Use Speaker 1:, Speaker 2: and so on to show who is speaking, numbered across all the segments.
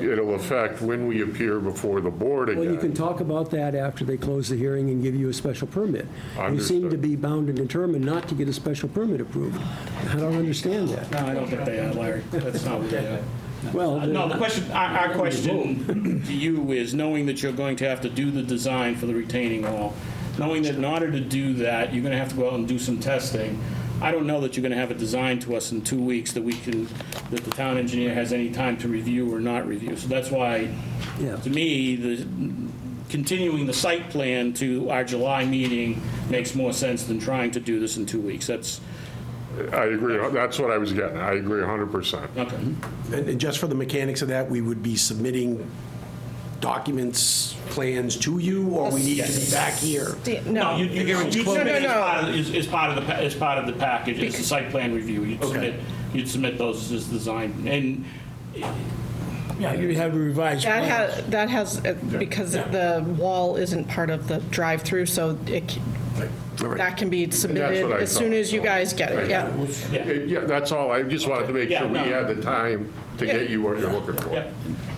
Speaker 1: it'll affect when we appear before the board
Speaker 2: Well, you can
Speaker 1: again.
Speaker 2: talk about that after they close the hearing and give you a special permit. You seem to
Speaker 1: Understood.
Speaker 2: be bound and determined not to get a special permit approved. I don't understand that.
Speaker 3: No, I don't think they are, Larry. That's not what they are.
Speaker 2: Well,
Speaker 3: Uh, No, the
Speaker 2: then-
Speaker 3: question, our, our question to you is, knowing that you're going to have to do the design for the retaining wall, knowing that in order to do that, you're gonna have to go out and do some testing, I don't know that you're gonna have a design to us in two weeks that we can, that the town engineer has any time to review or not review. So that's why,
Speaker 2: Yeah.
Speaker 3: to me, the, continuing the site plan to our July meeting makes more sense than trying to do this in two weeks. That's,
Speaker 1: I agree, that's what I was getting, I agree 100%.
Speaker 3: okay.
Speaker 4: And and just for the mechanics of that, we would be submitting documents, plans to you, or we need to be back here?
Speaker 5: Do you-
Speaker 3: No,
Speaker 5: No,
Speaker 3: you, you, you
Speaker 5: No,
Speaker 3: submit
Speaker 5: no,
Speaker 3: it as part
Speaker 5: no.
Speaker 3: of, is, is part of the, pa- is part of the package, it's the site plan review, you'd submit, you'd submit those as design, and
Speaker 6: Yeah, you have a revised
Speaker 5: That
Speaker 6: plan.
Speaker 5: has, that has, uh, because the wall isn't part of the drive-through, so it, c- that can be submitted
Speaker 1: what I
Speaker 5: as soon
Speaker 1: thought,
Speaker 5: as you
Speaker 1: so-
Speaker 5: guys get it, yeah.
Speaker 1: Uh, Yeah, that's all, I just wanted to make
Speaker 3: Yeah,
Speaker 1: sure we
Speaker 3: no.
Speaker 1: had the time to get you what you're looking for.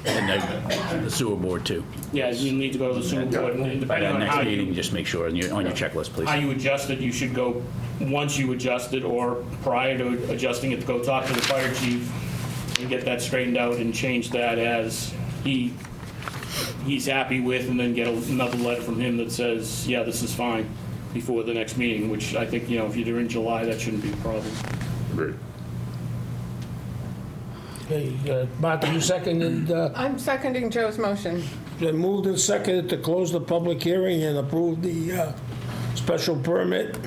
Speaker 7: And the- the sewer board too.
Speaker 3: yeah, you need to go to the sewer board, and
Speaker 7: By
Speaker 3: depending
Speaker 7: that
Speaker 3: on uh, how
Speaker 7: next meeting,
Speaker 3: you,
Speaker 7: just make sure, on your on your checklist, please.
Speaker 3: how you adjust it, you should go, once you adjust it, or prior to adjusting it, go talk to the fire chief and get that straightened out and change that as he, he's happy with, and then get another letter from him that says, yeah, this is fine, before the next meeting, which I think, you know, if you're in July, that shouldn't be a problem.
Speaker 1: Great.
Speaker 6: Okay, uh, Martha, you seconded, uh,
Speaker 5: I'm seconding Joe's motion.
Speaker 6: then moved and seconded to close the public hearing and approve the uh, special permit.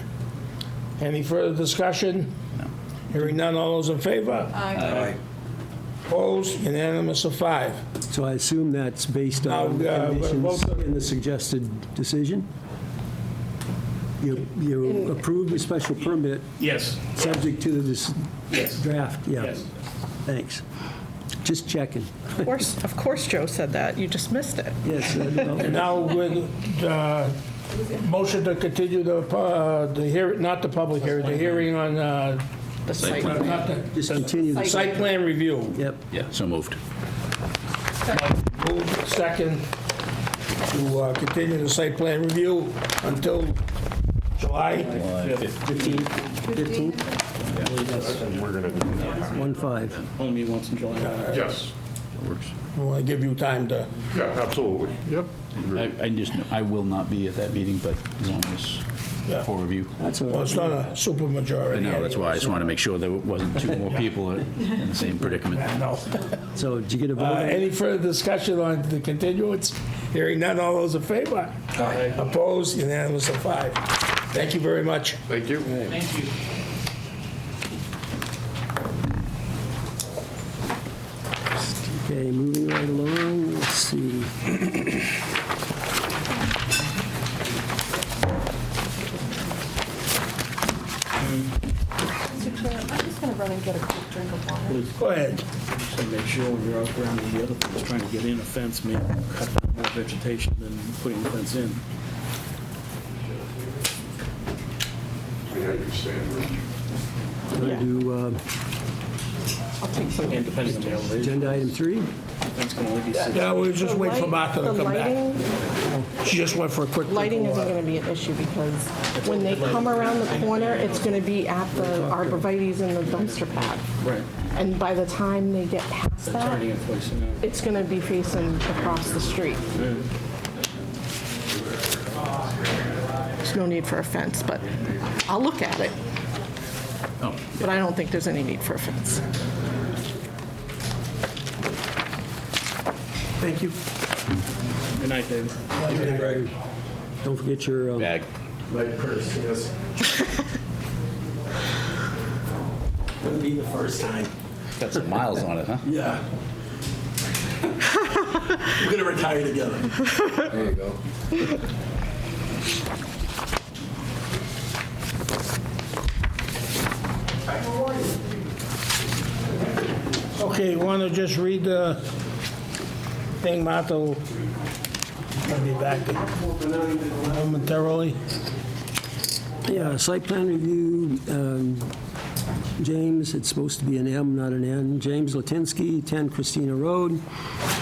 Speaker 6: Any further discussion? Hearing none, all those in favor?
Speaker 4: Aye.
Speaker 6: Opposed, unanimous of five.
Speaker 2: so I assume that's based
Speaker 3: Oh,
Speaker 2: on the
Speaker 6: Now, uh,
Speaker 2: conditions
Speaker 6: vote-
Speaker 2: in the suggested decision? You you approved the special permit
Speaker 3: Yes.
Speaker 2: subject to this
Speaker 3: Yes.
Speaker 2: draft, yeah.
Speaker 3: Yes.
Speaker 2: Thanks. Just checking.
Speaker 5: Of course, of course Joe said that, you just missed it.
Speaker 2: Yes, I know.
Speaker 6: Now with, uh, motion to continue the, pu- uh, the hearing, not the public hearing, the hearing on, uh,
Speaker 5: The site.
Speaker 6: not the-
Speaker 2: just continue this.
Speaker 6: Site plan review.
Speaker 2: Yep.
Speaker 7: Yeah, so moved.
Speaker 6: Move second to uh, continue the site plan review until July.
Speaker 2: Fifteenth? One five.
Speaker 3: Only once in July.
Speaker 1: Yes,
Speaker 6: We want to give you time to,
Speaker 1: yeah, absolutely, yep.
Speaker 7: I I just, I will not be at that meeting, but as long as, for review.
Speaker 2: That's all
Speaker 6: well,
Speaker 2: right.
Speaker 6: it's not a super
Speaker 7: I
Speaker 6: majority.
Speaker 7: know, that's why I just want to make sure there wasn't two more people in the same predicament.
Speaker 6: No.
Speaker 2: So did you get a vote?
Speaker 6: Uh,
Speaker 2: on it?
Speaker 6: Any further discussion on the continuance? Hearing none, all those in favor? Aye. Opposed, unanimous of five. Thank you very much.
Speaker 1: Thank you.
Speaker 3: Thank you.
Speaker 2: Okay, moving right along, let's see.
Speaker 8: Mr. Chair, I'm just going to run and get a quick drink of water.
Speaker 6: Go ahead.
Speaker 9: Just to make sure when you're out around the other things, trying to get in a fence, maybe cut down more vegetation than putting the fence in.
Speaker 1: We had you stand, Rich.
Speaker 2: Want to do uh,
Speaker 3: And depending on the elevation,
Speaker 2: agenda item three?
Speaker 3: fence can only be
Speaker 2: Uh,
Speaker 3: six.
Speaker 6: Yeah, we'll just wait for
Speaker 5: Light-
Speaker 6: Martha to
Speaker 5: the
Speaker 6: come back.
Speaker 5: lighting-
Speaker 6: She just went for a quick.
Speaker 5: Lighting isn't going to be an issue because when they come around the corner, it's going to be at the arborvitae's and the dumpster pad.
Speaker 9: Right.
Speaker 5: And by the time they get past that,
Speaker 9: Turning in place, you know.
Speaker 5: it's going to be facing across the street. There's no need for a fence, but I'll look at it. But I don't think there's any need for a fence.
Speaker 6: Thank you.
Speaker 3: Good night, David.
Speaker 2: Don't forget your, um,
Speaker 7: Bag.
Speaker 4: Wouldn't be the first time.
Speaker 7: Got some miles on it, huh?
Speaker 4: Yeah. We're gonna retire together.
Speaker 6: Okay, want to just read the thing, Martha? will be back momentarily.
Speaker 2: yeah, site plan review, um, James, it's supposed to be an M, not an N. James Latinsky, 10 Christina Road.